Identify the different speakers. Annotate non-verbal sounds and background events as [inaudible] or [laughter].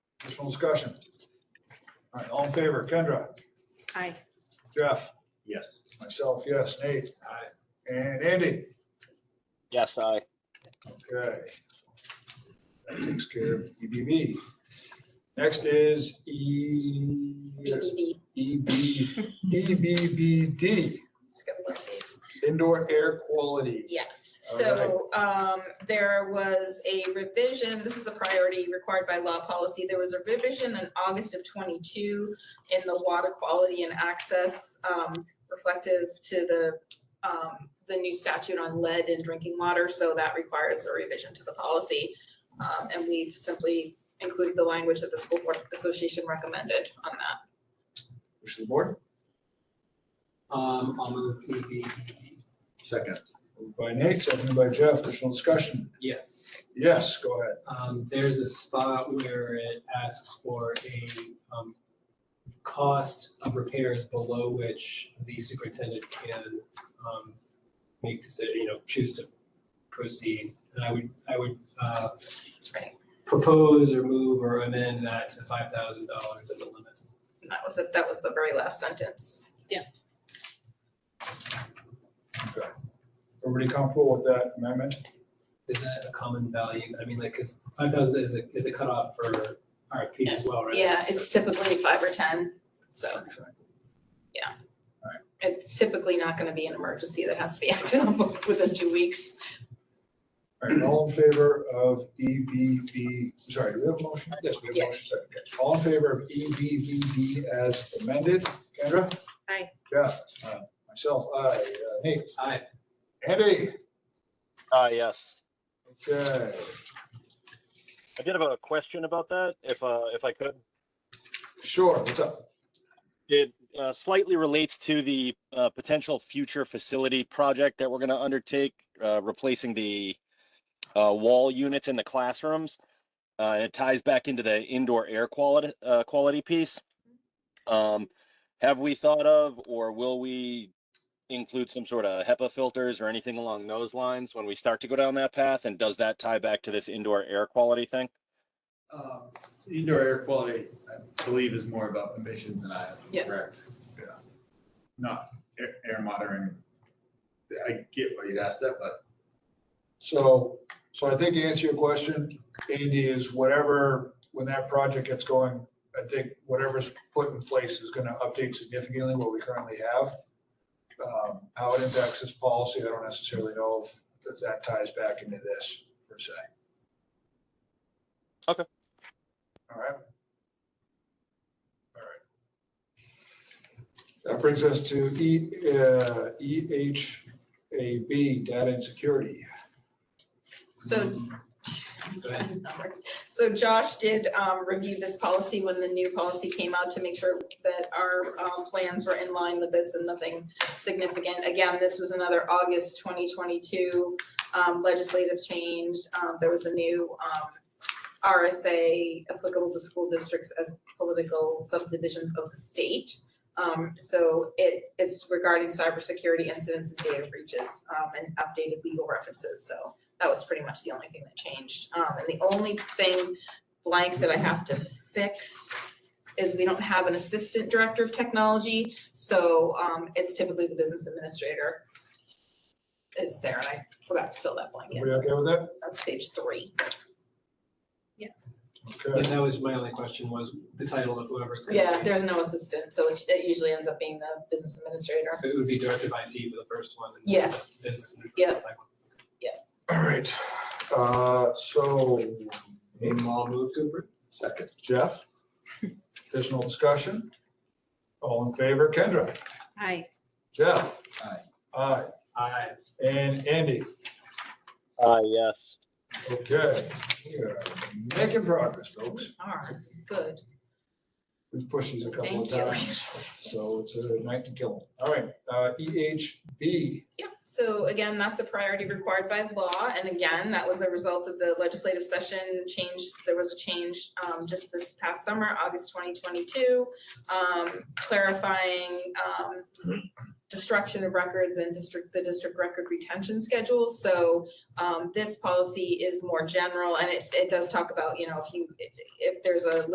Speaker 1: Additional discussion? All right, all in favor, Kendra,
Speaker 2: Aye.
Speaker 1: Jeff,
Speaker 3: Yes.
Speaker 1: myself, yes, Nate. Aye. And Andy?
Speaker 4: Yes, I.
Speaker 1: Okay. That takes care of EBB. Next is E,
Speaker 5: BBD.
Speaker 1: EB, EBBD,
Speaker 5: Let's go look at these.
Speaker 1: indoor air quality.
Speaker 5: Yes, so um, there was a revision, this is a priority required by law policy. There was a revision in August of '22 in the water quality and access um, reflective to the, um, the new statute on lead in drinking water. So that requires a revision to the policy. Um, And we've simply included the language that the School Board Association recommended on that.
Speaker 1: Wish of the board,
Speaker 6: Um, I'll move PB.
Speaker 3: Second.
Speaker 1: moved by Nate, seconded by Jeff, additional discussion.
Speaker 6: Yes.
Speaker 1: Yes, go ahead.
Speaker 6: Um, there's a spot where it asks for a, um, cost of repairs below which the superintendent can, um, make decision, you know, choose to proceed. And I would, I would, uh,
Speaker 5: That's right.
Speaker 6: propose or move or amend that to five thousand dollars as a limit.
Speaker 5: And That was, it. that was the very last sentence.
Speaker 1: Everybody comfortable with that amendment?
Speaker 6: Is that a common value? I mean, like, cause five thousand is a, is a cutoff for RFP as well, right?
Speaker 5: Yeah, it's typically five or 10, so it's typically not going to be an emergency that has to be [laughs] acted on within two weeks.
Speaker 1: All right, all in favor of EBB, sorry, do we have a motion? Yes, we have a motion. second. Okay. All in favor of E EBBB as amended, Kendra?
Speaker 2: Aye.
Speaker 1: Jeff? Aye. Myself, aye. Uh, Nate?
Speaker 6: Aye.
Speaker 1: Andy?
Speaker 4: Uh, yes.
Speaker 1: Okay,
Speaker 4: I did have a question about that, if, uh, if I could.
Speaker 1: sure, what's up?
Speaker 4: It uh, slightly relates to the uh, potential future facility project that we're going to undertake, uh, replacing the uh, wall units in the classrooms. Uh, It ties back into the indoor air quality, uh, quality piece. Um, Have we thought of, or will we include some sort of HEPA filters or anything along those lines when we start to go down that path? And does that tie back to this indoor air quality thing?
Speaker 3: Um, Indoor air quality, I believe, is more about emissions than I am.
Speaker 5: Yeah.
Speaker 3: Correct. Yeah. Not air, air monitoring. I get why you'd ask that, but
Speaker 1: So, so I think to answer your question, Andy, is whatever, when that project gets going, I think whatever's put in place is gonna update significantly what we currently have. Um, How it impacts this policy, I don't necessarily know if, if that ties back into this per se.
Speaker 4: Okay.
Speaker 1: All right. All right. That brings us to E, uh, EHAB, data insecurity.
Speaker 5: So um,
Speaker 6: Go ahead.
Speaker 5: So Josh did um, review this policy when the new policy came out to make sure that our um, plans were in line with this and nothing significant. Again, this was another August 2022 um, legislative change. Um, There was a new um, RSA applicable to school districts as political subdivisions of the state. Um, So it, it's regarding cybersecurity incidents and data breaches um, and updated legal references. So that was pretty much the only thing that changed. Um, and the only thing blank that I have to fix is we don't have an assistant director of technology, so, um, it's typically the business administrator is there, and I forgot to fill that blank in.
Speaker 1: Everybody okay with that?
Speaker 5: That's page three.
Speaker 2: Yes.
Speaker 6: Yeah,
Speaker 1: Okay,
Speaker 6: that was my only question was the title of whoever it's gonna be.
Speaker 5: Yeah, there's no assistant, so it's- it usually ends up being the business administrator.
Speaker 6: So it would be directed by IT for the first one. and then
Speaker 5: Yes.
Speaker 6: Business. and-
Speaker 5: Yeah.
Speaker 1: all right. Uh, so,
Speaker 6: And I'll move to approve.
Speaker 3: second.
Speaker 1: Jeff, additional discussion? All in favor, Kendra?
Speaker 2: Aye.
Speaker 1: Jeff?
Speaker 3: Aye.
Speaker 1: Aye.
Speaker 6: Aye.
Speaker 1: And Andy?
Speaker 4: Uh, yes.
Speaker 1: Okay, we are making progress, folks.
Speaker 5: Ours, good,
Speaker 1: We've pushed these a couple of
Speaker 5: thank you.
Speaker 1: times, so it's a night to kill. All right, uh, EHB,
Speaker 5: Yeah, so again, that's a priority required by law, and again, that was a result of the legislative session change, there was a change um just this past summer, August twenty twenty-two, um clarifying um destruction of records and district, the district record retention schedule, so um this policy is more general, and it it does talk about, you know, if you, if there's a